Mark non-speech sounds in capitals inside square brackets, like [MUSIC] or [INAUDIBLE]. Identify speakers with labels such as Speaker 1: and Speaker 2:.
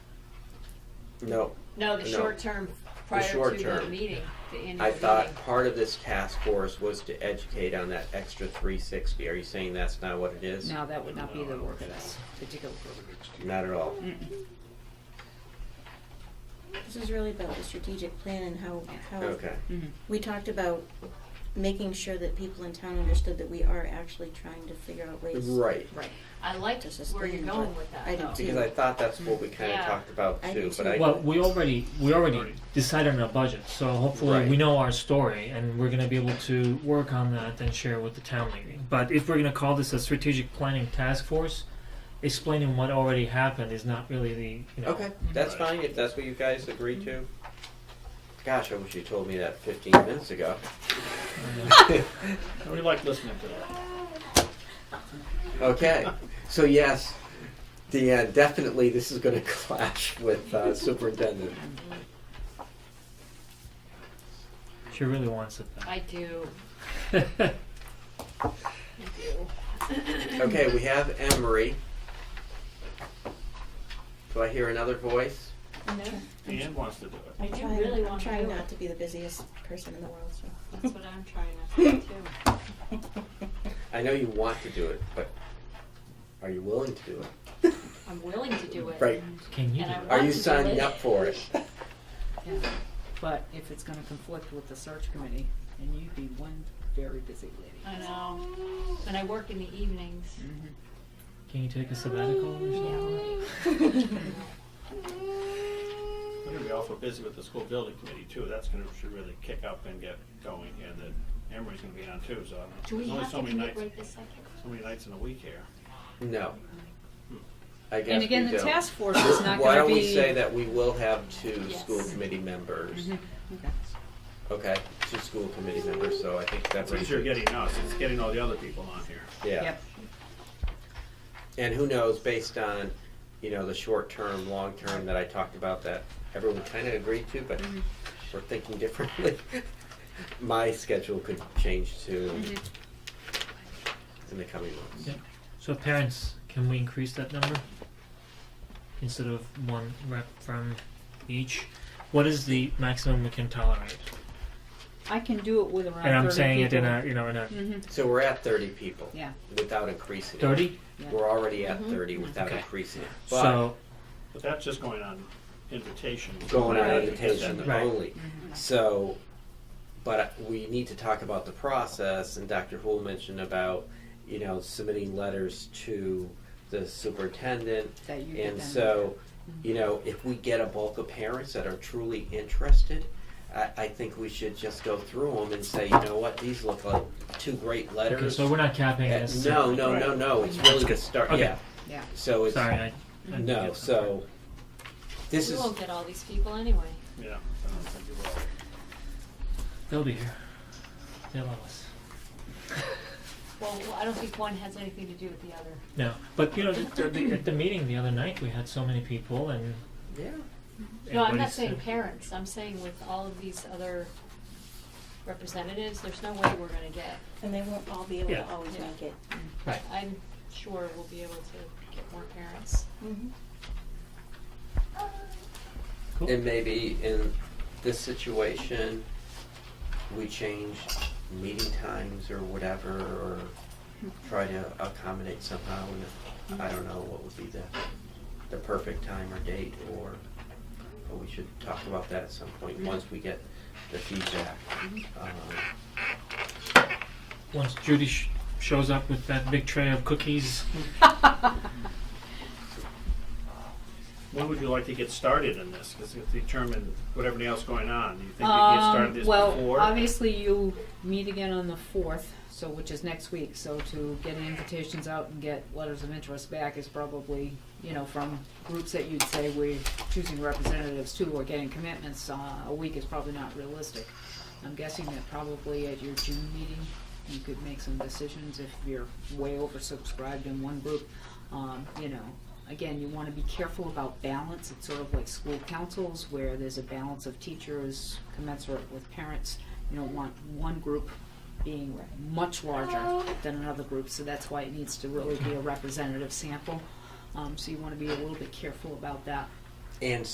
Speaker 1: No,
Speaker 2: No, the
Speaker 1: No.
Speaker 2: short term prior
Speaker 1: short
Speaker 2: to the
Speaker 1: term.
Speaker 2: meeting, the annual
Speaker 1: I thought
Speaker 2: meeting.
Speaker 1: part of this task force was to educate on that extra three sixty. Are you saying that's not what it is?
Speaker 3: Now, that would not be the work of this particular group.
Speaker 1: Not at all.
Speaker 4: This is really about the strategic plan and how, how,
Speaker 1: Okay.
Speaker 4: we talked about making sure that people in town understood that we are actually trying to figure out ways.
Speaker 1: Right.
Speaker 3: Right.
Speaker 2: I liked
Speaker 4: To
Speaker 2: where you're
Speaker 4: sustain
Speaker 2: going
Speaker 4: what
Speaker 2: with that
Speaker 4: I do
Speaker 2: though.
Speaker 4: too.
Speaker 1: Because I thought that's what we kind of
Speaker 2: Yeah.
Speaker 1: talked about
Speaker 4: I
Speaker 1: too,
Speaker 4: do
Speaker 1: but
Speaker 4: too.
Speaker 1: I.
Speaker 5: Well, we already we already decided on a budget, so hopefully
Speaker 1: Right.
Speaker 5: we know our story and we're gonna be able to work on that and share with the town meeting. But if we're gonna call this a strategic planning task force, explaining what already happened is not really the you know
Speaker 1: Okay, that's
Speaker 6: Right.
Speaker 1: fine, if that's what you guys agree to. Gosh, I wish you told me that fifteen minutes [LAUGHS] ago.
Speaker 6: We like listening to that.
Speaker 1: Okay, so yes, the, uh, definitely this is gonna [LAUGHS] clash with uh, superintendent.
Speaker 5: she really wants it
Speaker 2: I do,
Speaker 5: back.
Speaker 2: I do.
Speaker 1: Okay, we have Emery. Do I hear another voice?
Speaker 4: I'm try-
Speaker 6: Ian wants to do it.
Speaker 2: I
Speaker 4: I'm
Speaker 2: do
Speaker 4: trying-
Speaker 2: really
Speaker 4: I'm
Speaker 2: want to
Speaker 4: trying
Speaker 2: do it.
Speaker 4: not to be the busiest person in the world, so.
Speaker 2: [LAUGHS] That's what I'm trying to do too.
Speaker 1: I know you want to do it, but are you willing to do it?
Speaker 2: I'm willing to do it.
Speaker 1: Right.
Speaker 5: Can you
Speaker 2: And
Speaker 5: do
Speaker 2: I
Speaker 5: that?
Speaker 1: Are
Speaker 2: Want
Speaker 1: you
Speaker 2: to do
Speaker 1: signing
Speaker 2: it.
Speaker 1: up for it?
Speaker 3: But if it's gonna conflict with the search committee, and you'd be one very busy lady.
Speaker 2: I know, and I work in the evenings.
Speaker 3: Mm-hmm.
Speaker 5: Can you take a sabbatical or something?
Speaker 6: We're gonna be awful busy with the school building committee too. That's gonna, should really kick up and get going here. That Emery's gonna be on too, so I'm-
Speaker 2: Do we
Speaker 6: there's only
Speaker 2: have
Speaker 6: so
Speaker 2: to
Speaker 6: many
Speaker 2: do it
Speaker 6: nights,
Speaker 2: right this second?
Speaker 6: so many nights in a week here.
Speaker 1: No. I guess
Speaker 3: And again,
Speaker 1: we
Speaker 3: the
Speaker 1: don't.
Speaker 3: task force
Speaker 1: [COUGHS]
Speaker 3: is not gonna be.
Speaker 1: Why don't we say that we will have two
Speaker 2: Yes.
Speaker 1: school committee members?
Speaker 3: Okay.
Speaker 1: Okay, two school committee members, so I think that
Speaker 6: That's what you're
Speaker 1: raises.
Speaker 6: getting us. It's getting all the other people on here.
Speaker 1: Yeah,
Speaker 3: Yep,
Speaker 1: and who knows, based on, you know, the short term, long term that I talked about that everyone kind of agreed to, but
Speaker 3: Mm-hmm.
Speaker 1: we're thinking differently. [LAUGHS] My schedule could change too
Speaker 3: Mm-hmm.
Speaker 1: in the coming months.
Speaker 5: Yeah. So parents, can we increase that number? Instead of one rep from each? What is the maximum we can tolerate?
Speaker 3: I can do it with around thirty
Speaker 5: And
Speaker 3: people.
Speaker 5: I'm saying it in a you know in a
Speaker 3: Mhm,
Speaker 1: So we're at thirty people.
Speaker 3: yeah,
Speaker 1: Without increasing it.
Speaker 5: thirty.
Speaker 1: We're already at
Speaker 3: Mm-hmm.
Speaker 1: thirty without
Speaker 5: Okay.
Speaker 1: increasing it. But
Speaker 5: So
Speaker 6: But that's just going on invitation.
Speaker 1: going on
Speaker 3: Right.
Speaker 1: invitation
Speaker 5: Right.
Speaker 1: only.
Speaker 3: Mm-hmm.
Speaker 1: So, but we need to talk about the process, and Dr. Hool mentioned about, you know, submitting letters to the superintendent.
Speaker 3: that you get them. Mm-hmm.
Speaker 1: And so, you know, if we get a bulk of parents that are truly interested, I, I think we should just go through them and say, you know what, these look like two great
Speaker 5: okay,
Speaker 1: letters.
Speaker 5: so we're not capping
Speaker 1: Uh,
Speaker 5: this.
Speaker 1: No, no, no, no, it's really to start,
Speaker 5: Okay.
Speaker 1: yeah,
Speaker 3: Yeah,
Speaker 1: so it's,
Speaker 5: Sorry, I, I
Speaker 1: no, so, this
Speaker 2: We
Speaker 1: is,
Speaker 2: won't get all these people anyway.
Speaker 6: Yeah. I don't think you will.
Speaker 5: they'll be here. They love us.
Speaker 2: Well, I don't think one has anything to do with the other.
Speaker 5: No, but you know, at the, at the meeting the other night, we had so many people, and
Speaker 1: yeah,
Speaker 2: No, I'm not
Speaker 5: everybody's-
Speaker 2: saying parents, I'm saying with all of these other representatives, there's no way we're gonna get,
Speaker 4: And they won't all be able to
Speaker 5: Yeah.
Speaker 4: always
Speaker 2: Yeah. Mm-hmm.
Speaker 4: make it.
Speaker 5: Right.
Speaker 2: I'm sure we'll be able to get more parents.
Speaker 4: Mm-hmm.
Speaker 5: Cool.
Speaker 1: and maybe in this situation, we change meeting times or whatever, or try to accommodate somehow, and I don't know what would be the, the perfect time or date, or, but we should talk about that at some point,
Speaker 2: Mm-hmm.
Speaker 1: once we get the feedback. Um,
Speaker 5: Once Judy sh- shows up with that big tray of cookies,
Speaker 6: When would you like to get started in this? Because it's determined what everything else going on. Do you think you can get started
Speaker 3: Um,
Speaker 6: this
Speaker 3: well,
Speaker 6: before?
Speaker 3: obviously you meet again on the fourth, so, which is next week, so to get invitations out and get letters of interest back is probably, you know, from groups that you'd say we're choosing representatives to or getting commitments, uh, a week is probably not realistic. I'm guessing that probably at your June meeting, you could make some decisions if you're way oversubscribed in one group. Um, you know, again, you wanna be careful about balance, it's sort of like school councils where there's a balance of teachers commensurate with parents. You don't want one group being much larger than another group, so that's why it needs to really be a representative sample. Um, so you wanna be a little bit careful about that.
Speaker 1: And